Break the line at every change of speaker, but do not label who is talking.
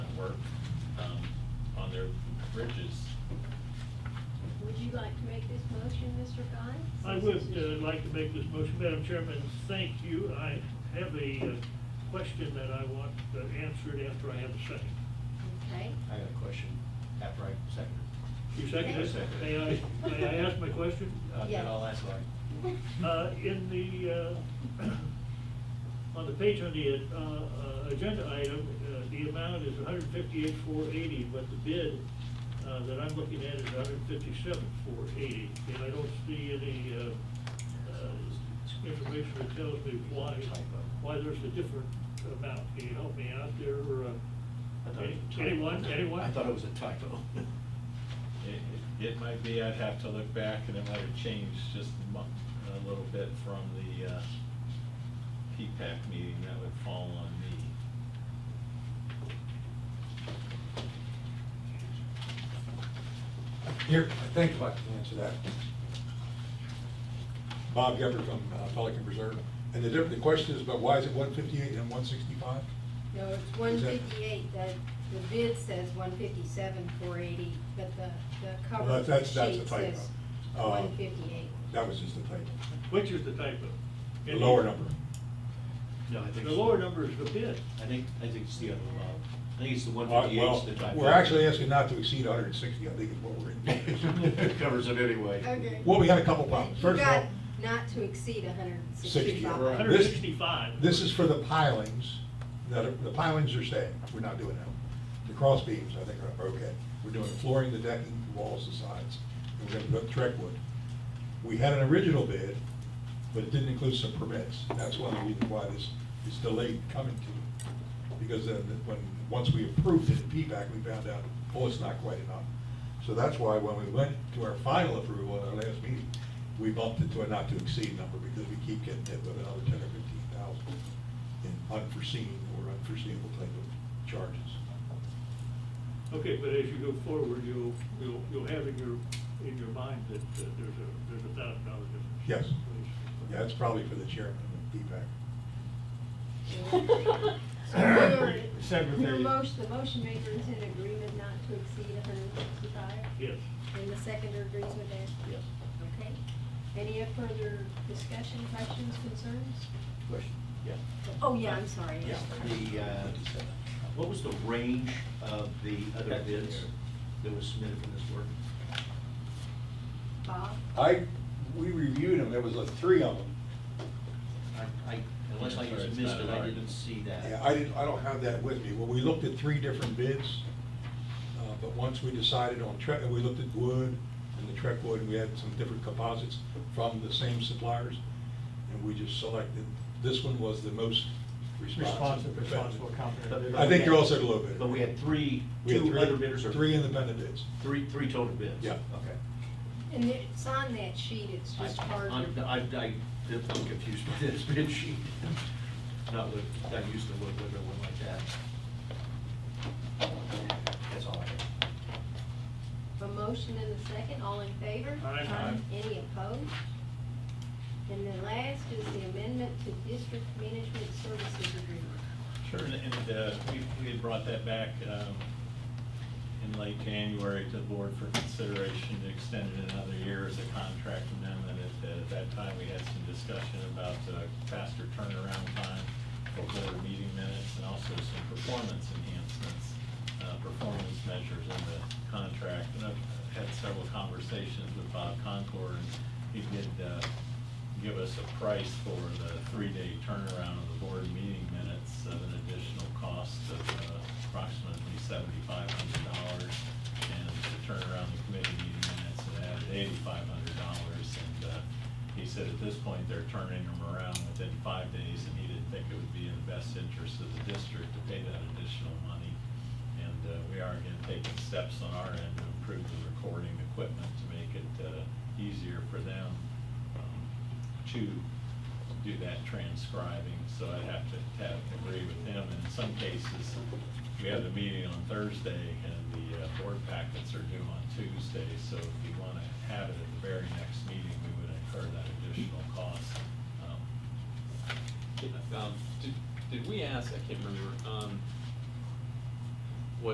um,
bridges.
Would you like to make this motion, Mr. Guy?
I would uh, like to make this motion, Madam Chairman, thank you. I have a uh, question that I want uh, answered after I have a second.
Okay.
I got a question after I second
You second
I
it?
second
May
it.
I, may I ask my question?
it. Uh,
Yes.
Then I'll ask Larry.
Uh, In the, uh, on the page on the uh, uh, agenda item, uh, the amount is 158,480, but the bid uh, that I'm looking at is 157,480. And I don't see any uh, uh, information that tells me why, why there's a different amount. Can you help me out there? or,
I
uh,
thought it was a typo.
Anyone, anyone?
I thought it was a typo.
It, it- it might be, I'd have to look back and it might have changed just a month, a little bit from the, uh, P-PAC meeting, that would fall on me.
Here, I think I can answer that. Bob Gepper from uh, Pelican Preserve. And the difference, the question is about why is it one fifty-eight and one sixty-five?
No, it's one
Is that-
fifty-eight, the, the bid says one fifty-seven, four eighty, but the, the cover
Well, that's- that's
sheet
the typo.
says
Uh,
one fifty-eight.
That was just a typo.
Which is the typo?
The lower number. Uh,
No, I think.
The lower number is the bid.
I think, I think it's the other, uh, I think it's the one
Uh,
fifty-eight's
Well,
the typo.
we're actually asking not to exceed hundred and sixty, I think is what we're in.
Covers it anyway.
Okay.
Well, we had a couple problems.
You
First of
got
all,
not to exceed hundred and
60,
sixty-five.
right.
Hundred and sixty-five.
This is for the pilings, that are- the pilings are staying, we're not doing that. The cross beams, I think, are okay. We're doing the flooring, the decking, the walls, the sides, and we're gonna put Trek wood. We had an original bid, but it didn't include some permits. That's one of the reasons why this is delayed coming to you. Because then, when, once we approved it in P-PAC, we found out, oh, it's not quite enough. So that's why when we went to our final approval at our last meeting, we bumped it to a not to exceed number because we keep getting hit with another ten or fifteen thousand in unforeseen or unforeseeable type of charges.
Okay, but as you go forward, you'll, you'll, you'll have in your, in your mind that uh, there's a, there's a thousand dollar difference.
Yes. Yeah, that's probably for the chairman of P-PAC.
Your- Your
Secretary.
motion, the motion maker is in agreement not to exceed hundred and sixty-five?
Yes.
And the seconder agrees with that?
Yes.
Okay. Any further discussion, questions, concerns?
Question, yeah.
Oh, yeah, I'm sorry.
Yeah, the, uh, what was the range of the other bids that was submitted for this work?
Bob?
I, we reviewed them, there was like three of them.
I, I, unless I
Sorry, it's
just
not
missed it,
an
I
argument.
didn't see that.
Yeah, I didn't, I don't have that with me. Well, we looked at three different bids, uh, but once we decided on Trek, we looked at wood and the Trek wood, and we had some different composites from the same suppliers, and we just selected, this one was the most responsive.
Responsive, responsible company.
But-
I think they're all said a little bit.
But we had three,
We had
two
three-
other bidders or?
Three independent bids.
Three, three total bids?
Yeah.
Okay.
And it's on that sheet, it's just
I-
hard
I'm,
to.
I, I, I'm confused with this bid sheet. Not with, not used to look with it one like that. That's all I have.
A motion and a second, all in favor?
Aye. Aye.
Any opposed? And the last is the amendment to district management services agreement.
Sure, and, and, uh, we, we had brought that back, um, in late January to the board for consideration to extend it another year as a contract amendment. At, at that time, we had some discussion about, uh, faster turnaround time for better meeting minutes and also some performance enhancements, uh, performance measures in the contract. And I've had several conversations with Bob Concord, and he did, uh, give us a price for the three-day turnaround of the board meeting minutes of an additional cost of uh, approximately seventy-five hundred dollars. And to turn around the committee meeting minutes, it added eighty-five hundred dollars. And uh, he said at this point, they're turning them around within five days, and he didn't think it would be in the best interest of the district to pay that additional money. And uh, we are again taking steps on our end to improve the recording equipment to make it uh, easier for them um, to do that transcribing, so I'd have to have, agree with them. In some cases, we have the meeting on Thursday, and the uh, board packets are due on Tuesday, so if you want to have it at the very next meeting, we would incur that additional cost. Um,
Um, did, did we ask, I can't remember, um,